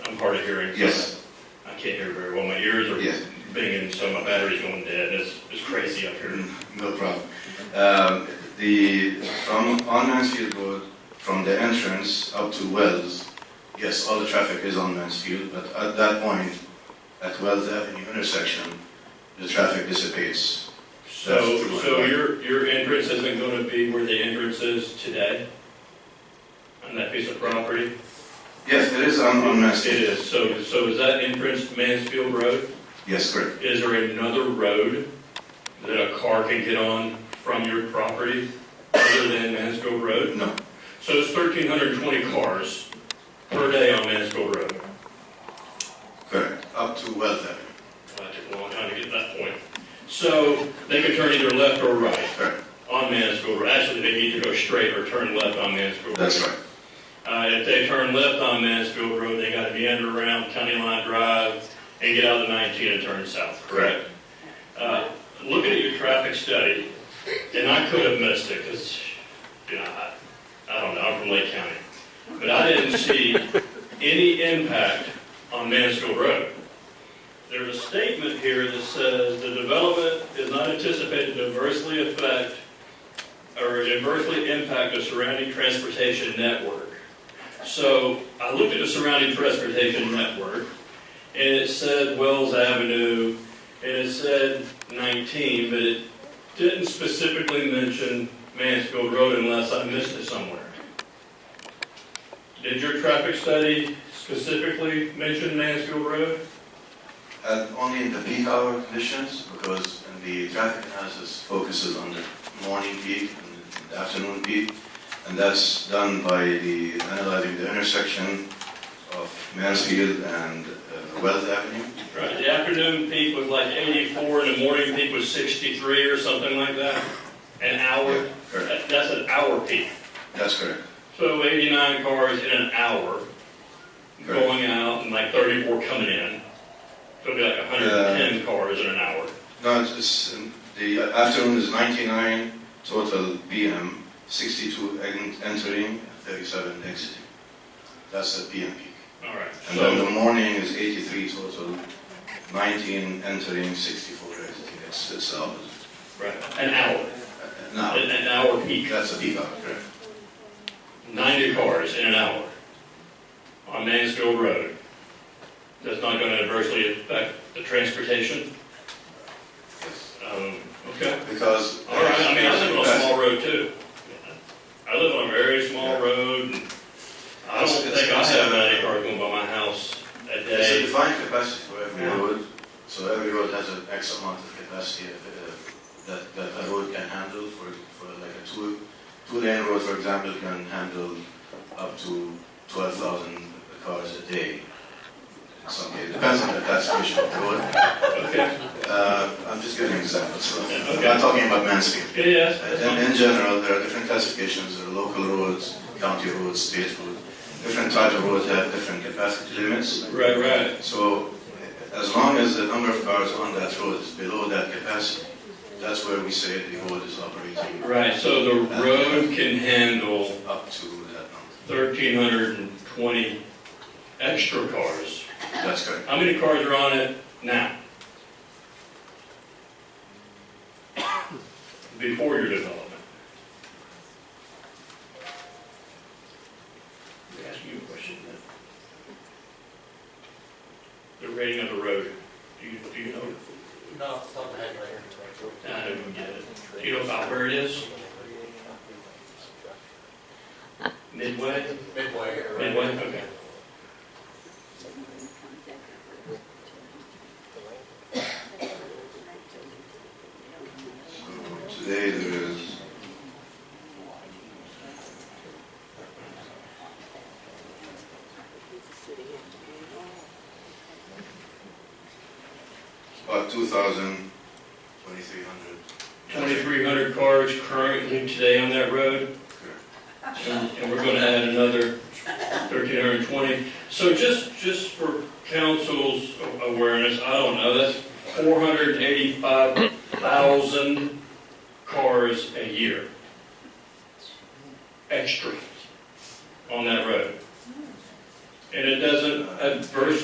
I'm hard of hearing. so Yes. I can't hear very well. My ears are Yeah. binging, so my battery's going dead. It's, it's crazy up here. No problem. Um, the from on Mansfield Road, from the entrance up to Wells, yes, all the traffic is on Mansfield, but at that point, at Wells Avenue intersection, the traffic dissipates. So, That's true. so your, your entrance isn't gonna be where the entrance is today? On that piece of property? Yes, it is on, on It Mansfield. is. So, so is that entrance Mansfield Road? Yes, correct. Is there another road that a car can get on from your property other than Mansfield Road? No, So it's thirteen hundred and twenty cars per day on Mansfield Road. correct. Up to Wells Avenue. Well, That took a long time to get to that point. So they could turn either left or right Correct. on Mansfield Road. Actually, they need to go straight or turn left on Mansfield Road. That's right. Uh, if they turn left on Mansfield Road, they gotta meander around County Line Drive and get out of the 19 and turn south, correct? Uh, looking at your traffic study, and I could have missed it, because, you know, I, I don't know, I'm from Lake County. But I didn't see any impact on Mansfield Road. There's a statement here that says, "The development is not anticipated to adversely affect or adversely impact the surrounding transportation network." So I looked at the surrounding transportation network, and it said Wells Avenue, and it said 19, but it didn't specifically mention Mansfield Road unless I missed it somewhere. Did your traffic study specifically mention Mansfield Road? And Uh, only in the peak hour conditions, because in the traffic analysis focuses on the morning peak and the afternoon peak, and that's done by the analyzing the intersection of Mansfield and uh, Wells Avenue. Right, the afternoon peak was like 84, and the morning peak was 63 or something like that, an hour. That- Correct. That's an hour peak. That's correct. So 89 cars in an hour Correct. going out and like 34 coming in. So it'd be like 110 cars in an hour. No, it's, it's um, the afternoon is 99 total BM, 62 en- entering, 37 exiting. That's the PM peak. All right. And then So, the morning is 83 total, 19 entering, 64 exiting. It's, it's uh, right, an hour, now, an an hour peak, that's a peak hour, correct? 90 cars in an hour on Mansfield Road. That's not going to adversely affect the transportation? Yes. Um, Okay. Because. All right, I mean, I live on a small road too. I live on a very small road, and I don't think I have ninety cars going by my house a It's a day. defined capacity for every Yeah. road, so every road has an X amount of capacity of, uh, that, that a road can handle for, for like a two, two-lane road, for example, can handle up to 12,000 cars a day. In some cases, depends on the classification of the road. Okay, Uh, I'm just giving examples. So Yeah, I'm okay. not talking about Mansfield. yeah, yeah, Uh, that's In, fine. in general, there are different classifications. There are local roads, county roads, state roads. Different types of roads have different capacity limits. right, right, So uh, as long as the number of cars on that road is below that capacity, that's where we say the road is operating right, so the road can handle up to that number. thirteen hundred and twenty extra cars. That's correct. How many cars are on it now? Before your development? Let me ask you a question then. The rating of the road, do you, do you know? No, off the top of my head right here. I didn't get it. Do you know about where it is? Midway? Midway or. Midway, okay. So today there is about 2,000, 2,300. Twenty-three hundred cars currently today on that road. And and we're gonna add another thirteen hundred and twenty. So just, just for council's awareness, I don't know, that's four hundred and eighty-five thousand cars a year. Extra on that road. And it doesn't adversely